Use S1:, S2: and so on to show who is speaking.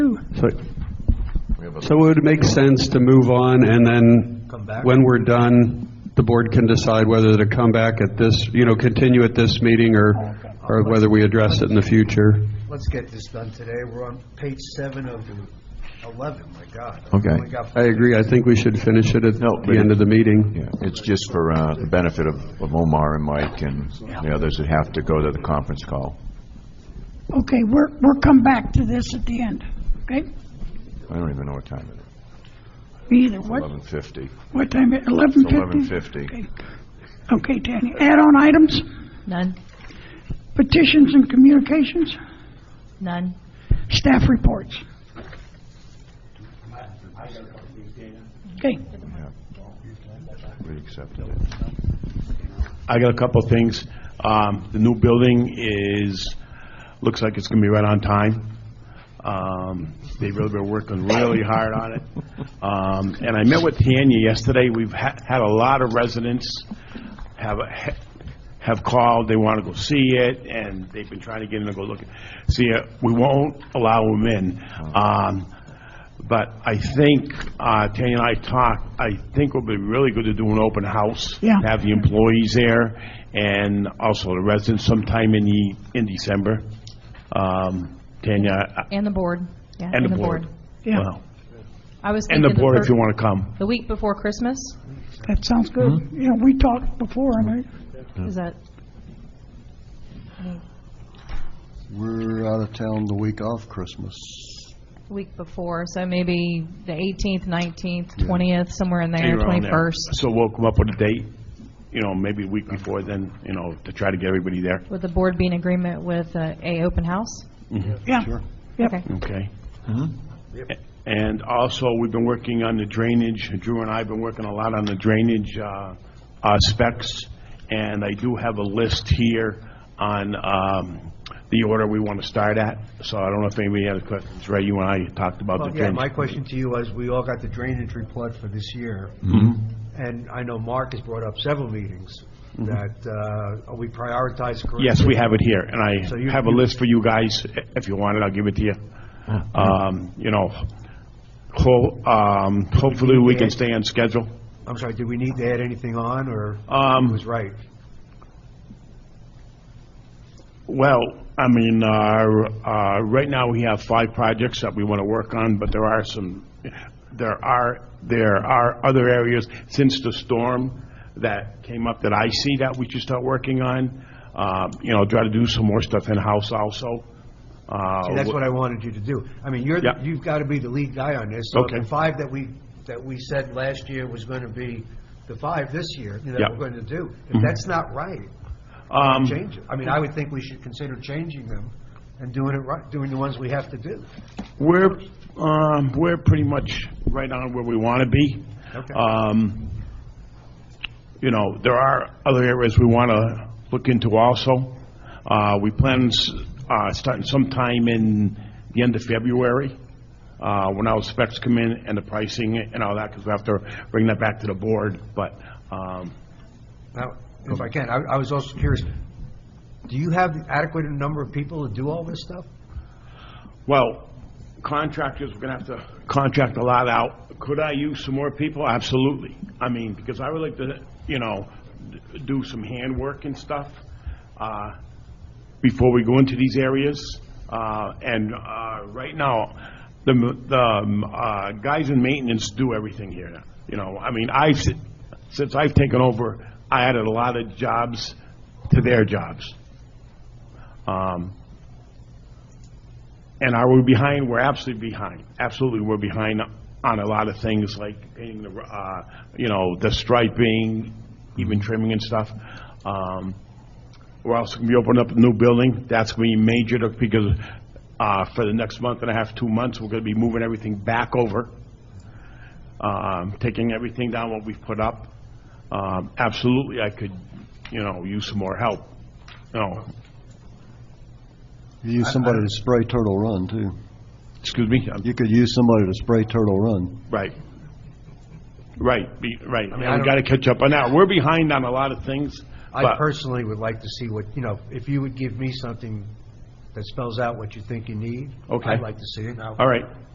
S1: So,
S2: We have a-
S1: so it would make sense to move on, and then,
S3: Come back.
S1: when we're done, the board can decide whether to come back at this, you know, continue at this meeting, or, or whether we address it in the future.
S3: Let's get this done today. We're on page seven of 11, my God.
S2: Okay.
S3: We got-
S1: I agree, I think we should finish it at
S2: No,
S1: the
S2: but-
S1: end of the meeting.
S2: Yeah, it's just for uh, the benefit of of Omar and Mike and the others that have to go to the conference call.
S4: Okay, we're, we'll come back to this at the end, okay?
S2: I don't even know what time it is.
S4: Me Either, what,
S2: 11:50.
S4: what time, eleven fifty?
S2: 11:50.
S4: Okay, Danny, add-on items,
S5: None,
S4: petitions and communications,
S5: none.
S4: staff reports. Okay,
S2: We accepted it.
S6: I got a couple of things. Um, The new building is, looks like it's going to be right on time. Um, They really been working really hard on it. Um, And I met with Tanya yesterday. We've ha- had a lot of residents have, a- have called, they want to go see it, and they've been trying to get in to go look, see it. We won't allow them in. Um, but I think, uh, Tanya and I talked, I think it would be really good to do an open house.
S4: Yeah.
S6: Have the employees there and also the residents sometime in the, in December. Um, Tanya, uh,
S5: And the board, yeah.
S6: and the board.
S4: Yeah.
S6: Well,
S5: I was
S6: And
S5: thinking
S6: the board if
S5: fir-
S6: you want to come.
S5: The week before Christmas,
S4: that sounds good. Yeah, we talked before, I mean,
S5: is that,
S7: We're out of town the week of Christmas.
S5: the week before, so maybe the 18th, 19th, 20th, somewhere in there,
S6: You're on there.
S5: 21st.
S6: So we'll come up with a date, you know, maybe a week before then, you know, to try to get everybody there,
S5: Would the board be in agreement with uh, a open house?
S4: yeah. Yep.
S5: Okay.
S6: okay?
S3: Hmm?
S6: A- And also, we've been working on the drainage, Drew and I have been working a lot on the drainage uh, uh, specs, and I do have a list here on um, the order we want to start at, so I don't know if anybody had questions, Ray, you and I talked about the
S3: Well, yeah, my
S6: drainage.
S3: question to you was, we all got the drainage report for this year.
S6: Mm-hmm.
S3: And I know Mark has brought up several meetings that, uh, are we prioritized correctly?
S6: Yes, we have it here, and
S3: So you-
S6: I have a list for you guys, I- if you want it, I'll give it to you.
S3: Uh-huh.
S6: Um, You know, ho- um, hopefully, we can stay on schedule.
S3: I'm sorry, did we need to add anything on, or
S6: Um,
S3: he was right?
S6: Well, I mean, uh, uh, right now, we have five projects that we want to work on, but there are some, there are, there are other areas since the storm that came up that I see that we should start working on. Uh, You know, try to do some more stuff in-house also. Uh,
S3: See, that's what I wanted you to do. I mean, you're, the-
S6: Yeah.
S3: you've got to be the lead guy on this. So if
S6: Okay.
S3: the five that we, that we said last year was going to be the five this year,
S6: Yeah. Mm-hmm.
S3: that we're going to do, if that's not right,
S6: Um,
S3: change it. I mean, I would think we should consider changing them and doing it right, doing the ones we have to do.
S6: We're, um, we're pretty much right on where we want to be.
S3: Okay.
S6: Um, You know, there are other areas we want to look into also. Uh, We plan s- uh, starting sometime in the end of February, uh, when our specs come in and the pricing and all that, because we have to bring that back to the board, but um,
S3: Now, if I can, I, I was also curious, do you have adequate number of people to do all this stuff?
S6: Well, contractors, we're going to have to contract a lot out. Could I use some more people? Absolutely. I mean, because I would like to, you know, d- do some handwork and stuff uh, before we go into these areas. Uh, And uh, right now, the m- the um, uh, guys in maintenance do everything here. now. You know, I mean, I, since I've taken over, I added a lot of jobs to their jobs. Um, and are we behind? We're absolutely behind. Absolutely, we're behind on a lot of things like painting the, uh, you know, the striping, even trimming and stuff. Um, We're also going to be opening up a new building. That's going to be major to- because uh, for the next month and a half, two months, we're going to be moving everything back over, um, taking everything down what we've put up. Um, Absolutely, I could, you know, use some more help. You know,
S7: You use somebody to spray Turtle Run, too.
S6: excuse me? I'm-
S7: You could use somebody to spray Turtle Run.
S6: Right. Right, be, right.
S3: mean,
S6: I
S3: I
S6: mean, we
S3: don't-
S6: gotta catch up on that. We're behind on a lot of things,
S3: I
S6: but,
S3: personally would like to see what, you know, if you would give me something that spells out what you think you need.
S6: Okay.
S3: I'd like to see it. Now,
S6: all right.